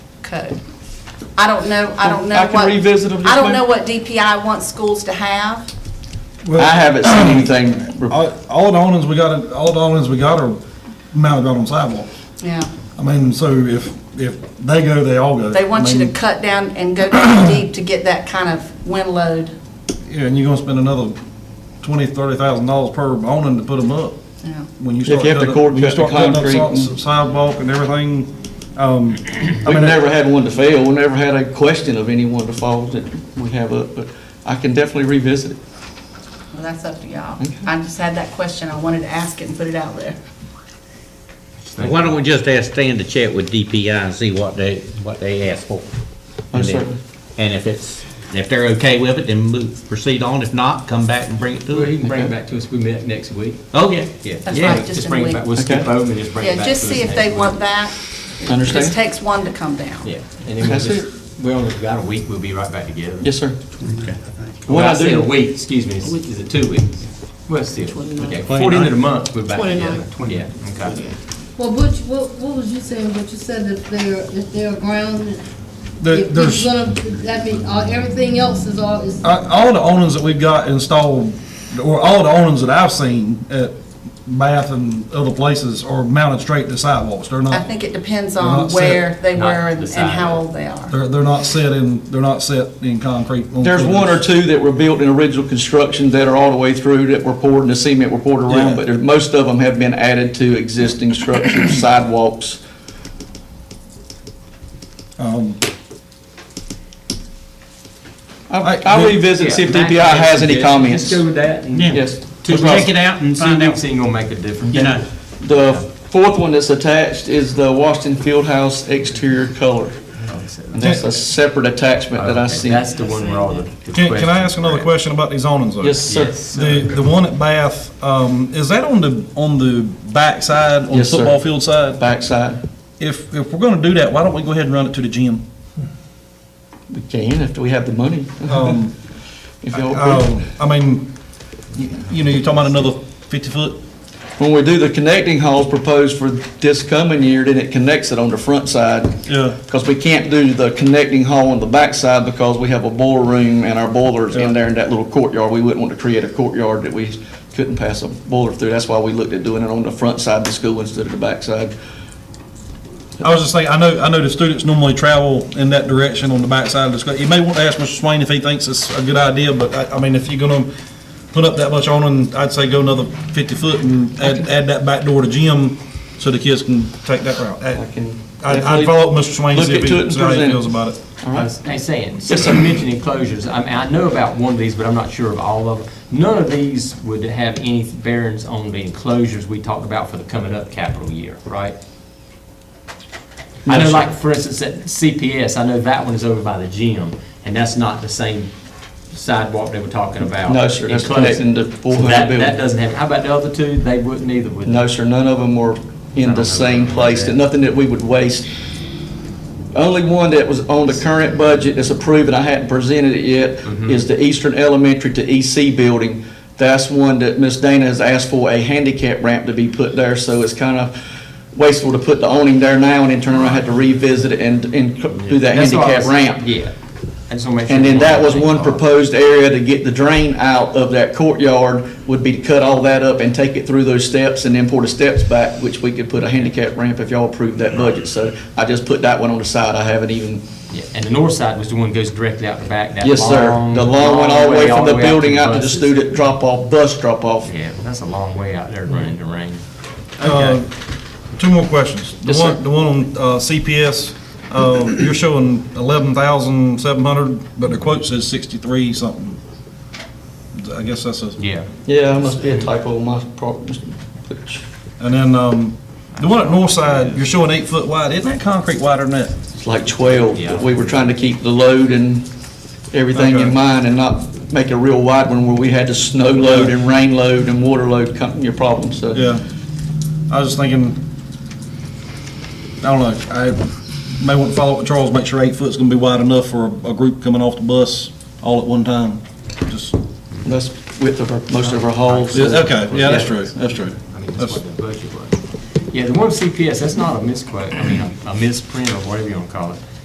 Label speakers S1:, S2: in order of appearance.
S1: code. I don't know, I don't know
S2: I can
S1: what-
S2: revisit them just
S1: I don't
S2: now.
S1: know what DPI wants schools to have.
S3: I
S4: Well,
S3: haven't seen anything, re-
S4: all, all the awnings we got, all the awnings we got are mounted on sidewalks.
S1: Yeah.
S4: I mean, so if, if they go, they all go.
S1: They want you
S4: I
S1: to
S4: mean,
S1: cut down and go down deep to get that kind of wind load.
S4: Yeah, and you're gonna spend another twenty, thirty thousand dollars per awning to put them up.
S1: Yeah.
S4: When you
S3: If you
S4: start
S3: have to
S4: cutting,
S3: court
S4: when you
S3: cut the
S4: start cutting up
S3: concrete
S4: si-
S3: and-
S4: sidewalk and everything, um, I
S3: we've
S4: mean,
S3: never had one to fail, we never had a question of anyone to fall that we have up, but I can definitely revisit it.
S1: Well, that's up to y'all. I just had that question, I wanted to ask it and put it out there.
S5: Why don't we just ask Stan to chat with DPI and see what they, what they ask for? And
S3: Yes, sir.
S5: then- And if it's, if they're okay with it, then move, proceed on. If not, come back and bring it
S6: Well,
S5: to
S6: he
S5: us.
S6: can bring it back to us, we met next week.
S5: Oh, yeah, yeah.
S1: That's
S5: yeah.
S1: right, just in
S6: Just
S1: a
S6: bring it
S1: week.
S6: back, we'll skip
S3: Okay.
S6: over and just bring it
S1: Yeah,
S6: back
S1: just
S6: to us
S1: see if
S6: next
S1: they
S6: week.
S1: want that. It just
S3: Understand?
S1: takes one to come down.
S6: Yeah, and then we'll
S3: That's
S6: just, we only got a week, we'll be right back together.
S3: Yes, sir.
S6: Well,
S3: What
S6: I
S3: I
S6: said
S3: do-
S6: a week, excuse me, is is it two weeks? Well, still, okay, fourteen of the month, we're back together. Yeah, okay.
S7: Well, Butch, what, what was you saying, what you said if they're, if they're grounded?
S4: There-
S7: if
S4: there's-
S7: it's gonna- That mean, uh, everything else is all, is,
S4: I- all the awnings that we've got installed, or all the awnings that I've seen at Bath and other places are mounted straight to sidewalks. They're
S1: I
S4: not,
S1: think it depends
S4: They're
S1: on
S4: not set.
S1: where they
S6: Not
S1: were and and
S6: decided.
S1: how old they are.
S4: they're, they're not set in, they're not set in concrete. on
S3: There's one or
S4: corners.
S3: two that were built in original construction that are all the way through that were poured and the cement were poured around,
S4: Yeah.
S3: but there- most of them have been added to existing structures, sidewalks.
S4: Um,
S3: I- I'll revisit, see if DPI has any comments.
S6: Just go with that. and-
S5: Yeah.
S3: Yes.
S5: To check it out and
S6: Two
S5: find
S6: weeks
S5: out,
S6: ain't gonna make a difference.
S5: you know.
S3: The fourth one that's attached is the Washington Fieldhouse exterior color. And that's a separate attachment that I
S6: Okay,
S3: see.
S6: That's the one where all the. the
S4: Can, can I
S6: questions
S4: ask another
S6: were at.
S4: question about these awnings though?
S3: Yes, sir.
S6: Yes,
S4: The,
S6: sir.
S4: the one at Bath, um, is that on the, on the backside, on the
S3: Yes, sir.
S4: football field side?
S3: Backside.
S4: If, if we're gonna do that, why don't we go ahead and run it to the gym?
S3: We can if we have the money.
S4: Um,
S3: If y'all-
S4: um, I mean, you, you know, you're talking about another fifty foot?
S3: When we do the connecting halls proposed for this coming year, then it connects it on the front side.
S4: Yeah.
S3: Because we can't do the connecting hall on the backside because we have a boiler room and our boiler's in there in that little courtyard. We wouldn't want to create a courtyard that we couldn't pass a boiler through. That's why we looked at doing it on the front side of the school instead of the backside.
S4: I was just thinking, I know, I know the students normally travel in that direction on the backside of the school. You may want to ask Mr. Swain if he thinks it's a good idea, but I, I mean, if you're gonna put up that much awning, I'd say go another fifty foot and add, add that back door to gym so the kids can take that route. I-
S3: I can
S4: I'd, I'd follow up with Mr. Swain, and see
S3: Look
S4: if
S3: into it
S4: he,
S3: and
S4: see how he
S3: present it.
S4: feels about it.
S6: I was I was saying, since you mentioned enclosures, I mean, I know about one of these, but I'm not sure of all of them. None of these would have any bearings on the enclosures we talked about for the coming up capital year, right? I know like, for instance, at CPS, I know that one is over by the gym, and that's not the same sidewalk they were talking about.
S3: No, sir, that's
S6: Enclosed.
S3: connecting to
S6: So
S3: Bullhead
S6: that-
S3: Building.
S6: That doesn't have, how about the other two? They wouldn't either, would they?
S3: No, sir, none of them were in the same place, that- nothing that we would waste. Only one that was on the current budget that's approved, and I hadn't presented it yet,
S6: Mm-hmm.
S3: is the Eastern Elementary to EC building. That's one that Ms. Dana has asked for a handicap ramp to be put there, so it's kind of wasteful to put the awning there now and then turn around, have to revisit it and, and do that
S6: That's what I
S3: handicap
S6: was-
S3: ramp.
S6: Yeah. I just wanna make sure
S3: And then that was one
S6: Oh.
S3: proposed area to get the drain out of that courtyard would be to cut all that up and take it through those steps and then pour the steps back, which we could put a handicap ramp if y'all approved that budget. So I just put that one on the side. I haven't even,
S6: Yeah, and the north side was the one that goes directly out the back, that long.
S3: yes, sir. The long one all the way from the
S6: out to
S3: building out to the
S6: buses.
S3: student drop off, bus drop off.
S6: Yeah, that's a long way out there running the rain.
S4: Uh, Two more questions. The
S3: Yes, sir.
S4: one, the one on uh, CPS, uh, you're showing eleven thousand seven hundred, but the quote says sixty-three something. I guess that's a.
S6: Yeah.
S3: Yeah, it must be a typo on my part.
S4: And then, um, the one at north side, you're showing eight foot wide, isn't that concrete wider than that?
S3: It's like 12,
S6: Yeah.
S3: but we were trying to keep the load and everything
S4: Okay.
S3: in mind and not make a real wide one where we had to snow load and rain load and water load come, your problem, so.
S4: Yeah. I was just thinking, I don't know, I may want to follow up with Charles, make sure eight foot's gonna be wide enough for a, a group coming off the bus all at one time. Just,
S3: That's width of our, most of our halls.
S4: yeah, okay, yeah, that's true, that's true.
S6: I mean, that's
S4: That's-
S6: what the budget was. Yeah, the one CPS, that's not a misquote, I mean, a a misprint or whatever you wanna call it.